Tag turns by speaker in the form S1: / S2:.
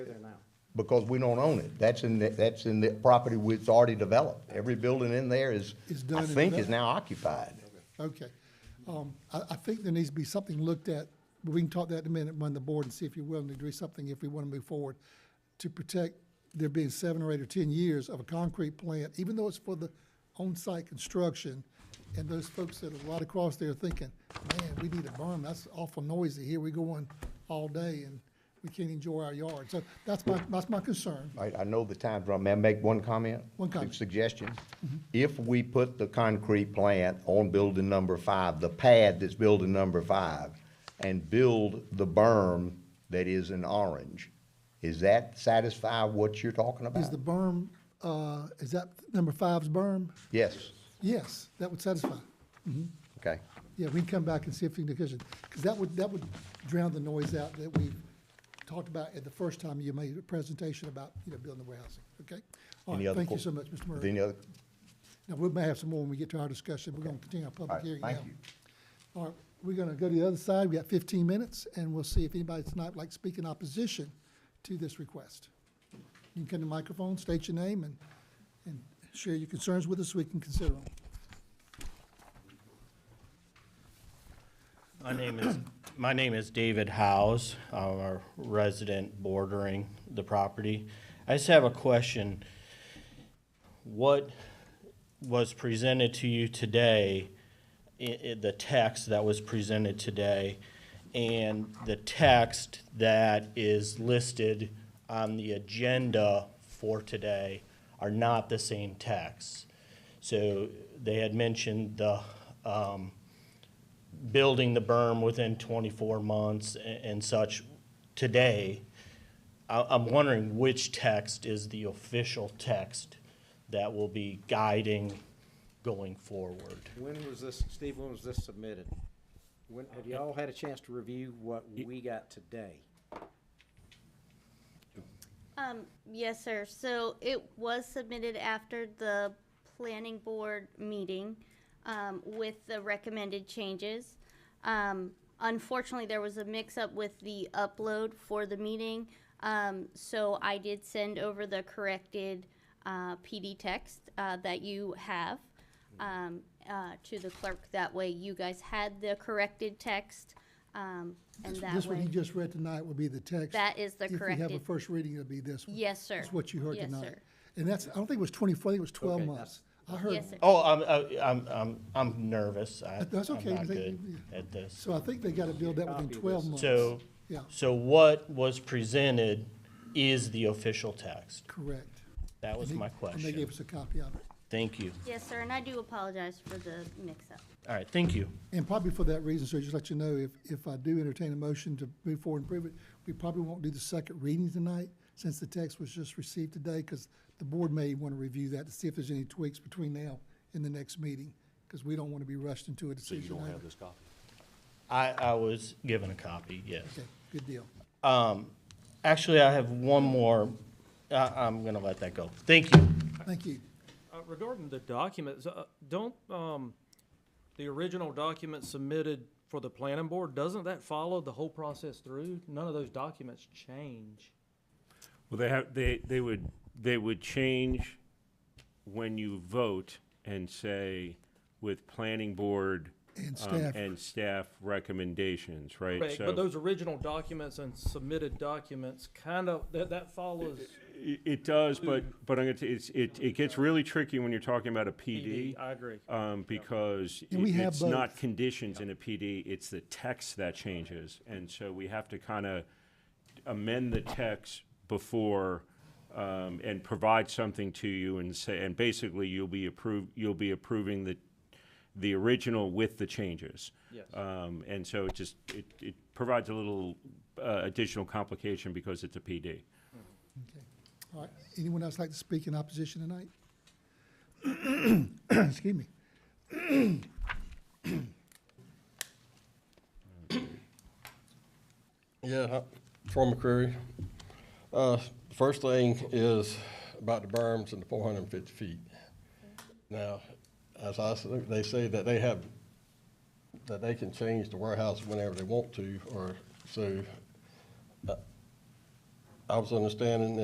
S1: there now.
S2: because we don't own it. That's in, the- that's in the property which is already developed. Every building in there is,
S3: Is done
S2: I
S3: and
S2: think, is
S3: done.
S2: now occupied.
S3: Okay. Um, I, I think there needs to be something looked at, but we can talk that in a minute, run the board and see if you're willing to do something if we want to move forward to protect there being seven or eight or ten years of a concrete plant, even though it's for the on-site construction. And those folks that are right across there thinking, man, we need a berm, that's awful noisy. Here we go on all day and we can't enjoy our yard. So that's my, that's my concern.
S2: I, I know the time's run. May I make one comment?
S3: One comment. Mm-hmm.
S2: Suggestion? If we put the concrete plant on building number five, the pad that's building number five, and build the berm that is in orange, is that satisfy what you're talking
S3: Is the
S2: about?
S3: berm, uh, is that number five's berm?
S2: Yes,
S3: Yes, that would satisfy.
S2: okay.
S3: Yeah, we can come back and see if we can, because that would, that would drown the noise out that we talked about at the first time you made a presentation about, you know, building the warehousing, okay? All
S2: Any
S3: right,
S2: other
S3: thank you
S2: que-
S3: so much, Mr.
S2: Any
S3: Murray.
S2: other,
S3: Now, we may have some more when we get to our discussion. We're gonna continue our
S2: all
S3: public
S2: right,
S3: hearing now.
S2: thank you.
S3: All right, we're gonna go to the other side. We got fifteen minutes, and we'll see if anybody tonight would like to speak in opposition to this request. You can come to the microphone, state your name, and, and share your concerns with us so we can consider them.
S4: My name is, my name is David Howes, I'm a resident bordering the property. I just have a question. What was presented to you today, i- i- the text that was presented today, and the text that is listed on the agenda for today are not the same text. So they had mentioned the, um, building the berm within 24 months a- and such today, I- I'm wondering which text is the official text that will be guiding going forward?
S1: When was this, Steve, when was this submitted? When, have y'all had a chance to review what we got today?
S5: Um, yes, sir. So it was submitted after the planning board meeting, um, with the recommended changes. Um, unfortunately, there was a mix-up with the upload for the meeting. Um, so I did send over the corrected, uh, PD text, uh, that you have, um, uh, to the clerk. That way you guys had the corrected text, um, and
S3: This-
S5: that way.
S3: This one you just read tonight would be the text.
S5: That is the
S3: If we have a
S5: corrected-
S3: first reading, it'll be this one.
S5: Yes, sir.
S3: That's what you heard
S5: Yes,
S3: tonight.
S5: sir.
S3: And that's, I don't think it was twenty-four, I think it was twelve
S1: Okay,
S3: months. I heard,
S5: Yes, sir.
S4: Oh, I'm, I- I'm, I'm, I'm nervous. I-
S3: That's okay.
S4: I'm not
S3: They-
S4: good at this.
S3: so I think they gotta build that within
S1: Copy
S3: twelve
S1: this.
S3: months.
S4: So,
S3: Yeah,
S4: so what was presented is the official text?
S3: correct.
S4: That was
S3: And they-
S4: my
S3: And they gave
S4: question.
S3: us a copy of it.
S4: Thank you.
S5: Yes, sir, and I do apologize for the mix-up.
S4: All right, thank you.
S3: And probably for that reason, so just let you know, if, if I do entertain a motion to move forward and prove it, we probably won't do the second reading tonight, since the text was just received today, because the board may want to review that to see if there's any tweaks between now and the next meeting, because we don't want to be rushed into a decision. So you don't have this?
S4: I, I was given a copy, yes.
S3: Okay, good deal.
S4: Actually, I have one more. I, I'm gonna let that go. Thank you.
S3: Thank you.
S6: Uh, Regarding the documents, uh, don't, um, the original document submitted for the planning board, doesn't that follow the whole process through? None of those documents change.
S7: Well, they have, they, they would, they would change when you vote and say with planning board.
S3: And
S7: um,
S3: staff.
S7: And staff recommendations, right?
S6: Correct,
S7: So
S6: but those original documents and submitted documents kind of, that, that follows
S7: i- It does, but, but I'm gonna, t- it's, it, it gets really tricky when you're talking about a
S6: PD.
S7: PD.
S6: E I agree.
S7: Um, because
S3: And we
S7: it-
S3: have
S7: it's not conditions in a PD, it's the text that changes. And so we have to kind of amend the text before, um, and provide something to you and say, and basically you'll be approve, you'll be approving the, the original with the changes.
S6: Yes.
S7: Um, and so it just, it, it provides a little, uh, additional complication because it's a PD.
S3: Okay. All right. Anyone else like to speak in opposition tonight? Excuse me.
S8: Yeah, hi- Troy McCreary. Uh, First thing is about the berms and the four hundred and fifty feet. Now, as I, s- they say that they have, that they can change the warehouse whenever they want to, or so. uh, I was understanding